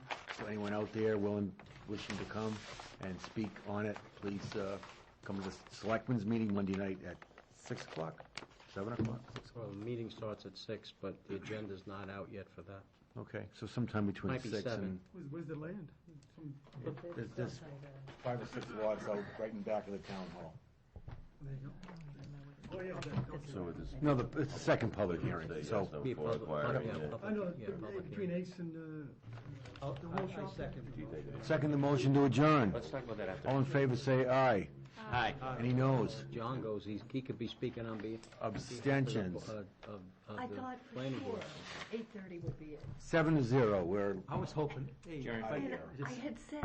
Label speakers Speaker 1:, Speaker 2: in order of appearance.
Speaker 1: So anyone out there willing, wishing to come and speak on it, please uh, come to the Selectmen's meeting Monday night at 6 o'clock, 7 o'clock?
Speaker 2: Well, the meeting starts at six, but the agenda's not out yet for that.
Speaker 1: Okay, so sometime between
Speaker 2: Might be
Speaker 1: 6 and...
Speaker 2: seven.
Speaker 3: Where's, where's the land? Some,
Speaker 1: There's- There's
Speaker 4: uh,
Speaker 1: five or six lots out right in back of the town hall.
Speaker 3: there you go. Oh, yeah, that, okay.
Speaker 5: So it is,
Speaker 1: No, the- it's the second public hearing,
Speaker 5: there's
Speaker 1: so...
Speaker 5: no
Speaker 2: Be a
Speaker 5: for
Speaker 2: public-
Speaker 5: acquiring
Speaker 2: yeah,
Speaker 5: it.
Speaker 2: public-
Speaker 3: I know,
Speaker 2: yeah,
Speaker 3: but, uh,
Speaker 2: public
Speaker 3: between
Speaker 2: hearing.
Speaker 3: Ace and, uh, the
Speaker 2: I-
Speaker 3: wall
Speaker 2: I
Speaker 3: shop.
Speaker 2: second.
Speaker 1: Second the motion to adjourn.
Speaker 5: Let's talk about that after.
Speaker 1: All in favor, say aye.
Speaker 5: Hi.
Speaker 1: Any noes?
Speaker 2: John goes, he's, he could be speaking on behalf.
Speaker 1: Abstentions.
Speaker 2: Of, of- of
Speaker 4: I
Speaker 2: the
Speaker 4: thought for
Speaker 2: planning
Speaker 4: sure
Speaker 2: board.
Speaker 4: eight thirty would be it.
Speaker 1: Seven to zero, we're...
Speaker 3: I was hoping.
Speaker 5: Jerry, if I-
Speaker 4: And I had said